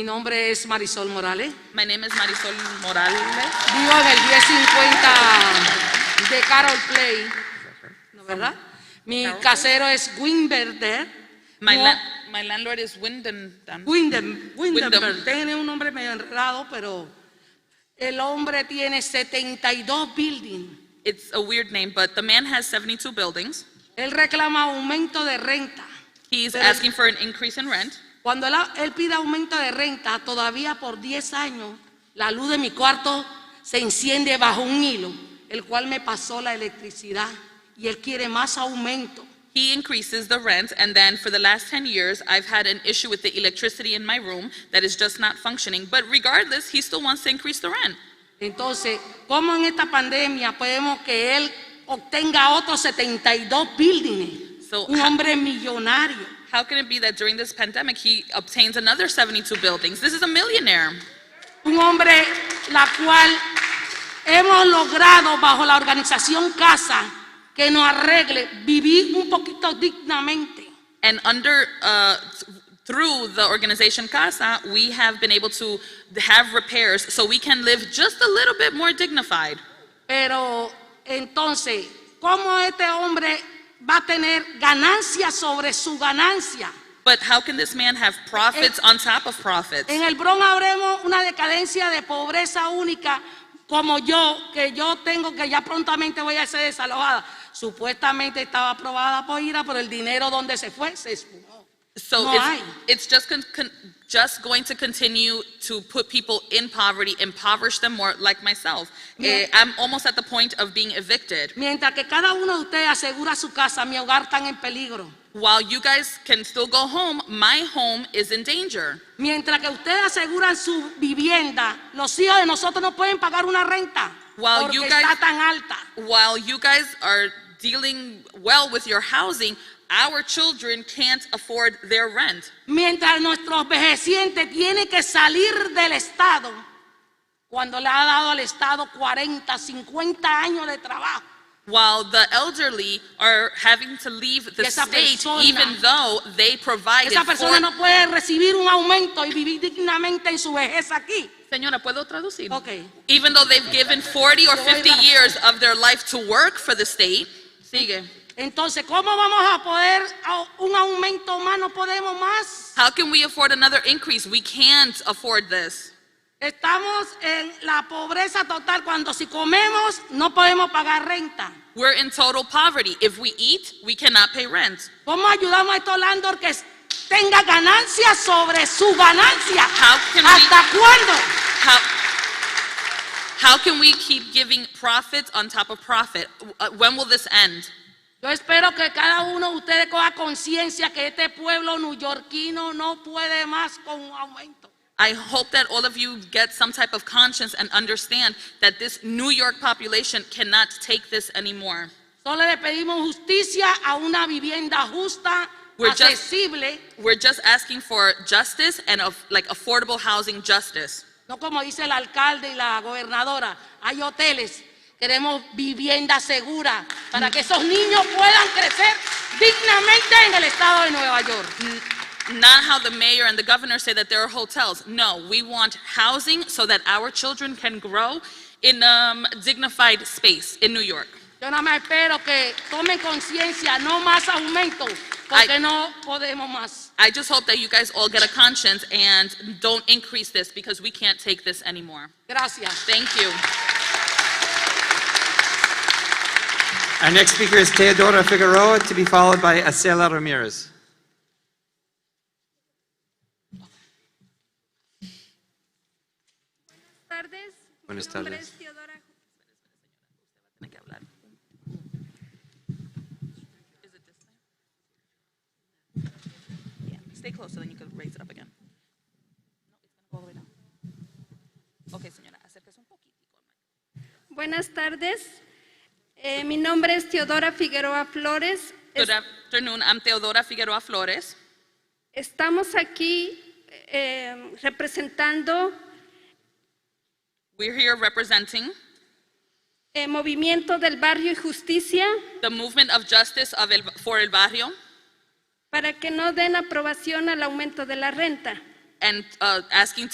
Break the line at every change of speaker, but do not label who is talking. Mi nombre es Marisol Morales.
My name is Marisol Morales
Vivo en el 1050 de Carol Play, ¿no verdad? Mi
Carol Play?
casero es Winberder.
My,
Mo-
lan- my landlord is Wyndham. Dan-
Windem- Windenberg.
Windenberg.
Tiene un nombre medio enredado, pero el hombre tiene 72 buildings.
It's a weird name, but the man has 72 buildings.
Él reclama aumento de renta.
He's
Pero-
asking for an increase in rent.
Cuando él, él pide aumento de renta, todavía por 10 años, la luz de mi cuarto se enciende bajo un hilo, el cual me pasó la electricidad. Y él quiere más aumento.
He increases the rent, and then for the last 10 years, I've had an issue with the electricity in my room that is just not functioning. But regardless, he still wants to increase the rent.
Entonces, ¿cómo en esta pandemia podemos que él obtenga otros 72 buildings?
So,
un
ha-
hombre millonario.
How can it be that during this pandemic, he obtains another 72 buildings? This is a millionaire.
Un hombre la cual hemos logrado bajo la organización Casa que nos arregle vivir un poquito dignamente.
And under, uh, th- through the organization Casa, we have been able to have repairs so we can live just a little bit more dignified.
Pero entonces, ¿cómo este hombre va a tener ganancia sobre su ganancia?
But how can this man have profits on top of profits?
En el Bronx habremos una decadencia de pobreza única como yo, que yo tengo que ya prontamente voy a ser desalojada. Supuestamente estaba aprobada por IRA, pero el dinero donde se fue se esfumó.
So
No
it's,
hay.
it's just con, con, just going to continue to put people in poverty, impoverish them more, like myself.
Yeah.
Eh, I'm almost at the point of being evicted.
Mientras que cada uno de ustedes asegura su casa, mi hogar está en peligro.
While you guys can still go home, my home is in danger.
Mientras que ustedes aseguran su vivienda, los hijos de nosotros no pueden pagar una renta
While
porque
you guys-
está tan alta.
While you guys are dealing well with your housing, our children can't afford their rent.
Mientras nuestros vejecientes tienen que salir del Estado, cuando le ha dado al Estado 40, 50 años de trabajo.
While the elderly are having to leave the
Esa
state,
persona-
even though they provided
Esa persona
for.
no puede recibir un aumento y vivir dignamente en su vejez aquí.
Señora, ¿puedo traducir?
Ok.
Even though they've given 40 or
Yo voy
50
back.
years of their life to work for the state. Sigue.
Entonces, ¿cómo vamos a poder a- un aumento más? No podemos más.
How can we afford another increase? We can't afford this.
Estamos en la pobreza total cuando si comemos no podemos pagar renta.
We're in total poverty. If we eat, we cannot pay rent.
¿Cómo ayudamos a estos landor que tenga ganancias sobre su ganancia?
How can we-
¿Hasta cuándo?
How, how can we keep giving profit on top of profit? Uh, When will this end?
Yo espero que cada uno de ustedes coja conciencia que este pueblo neoyorquino no puede más con un aumento.
I hope that all of you get some type of conscience and understand that this New York population cannot take this anymore.
Solo le pedimos justicia a una vivienda justa,
We're just-
accesible,
We're just asking for justice and of, like affordable housing justice.
no como dice el alcalde y la gobernadora. Hay hoteles, queremos vivienda segura para que esos niños puedan crecer dignamente en el estado de Nueva York.
Not how the mayor and the governor say that there are hotels. No, we want housing so that our children can grow in um, dignified space in New York.
Yo nada más espero que tomen conciencia, no más aumento, porque
Ay.
no podemos más.
I just hope that you guys all get a conscience and don't increase this because we can't take this anymore.
Gracias.
Thank you.
Our next speaker is Teodora Figueroa, to be followed by Acela Ramirez.
Buenas tardes. Mi
Buenas
nombre
tardes.
es Teodora.
Yeah, Stay close so then you can raise it up again. No, it's gonna go all the way down. Okay, señora, acérquese un poquitico.
Buenas tardes. Eh, mi nombre es Teodora Figueroa Flores. Es-
Good afternoon, I'm Teodora Figueroa Flores.
estamos aquí eh, representando
We're here representing
el eh, movimiento del barrio y justicia
the movement of justice of El, for El Barrio
para que no den aprobación al aumento de la renta.
and uh, asking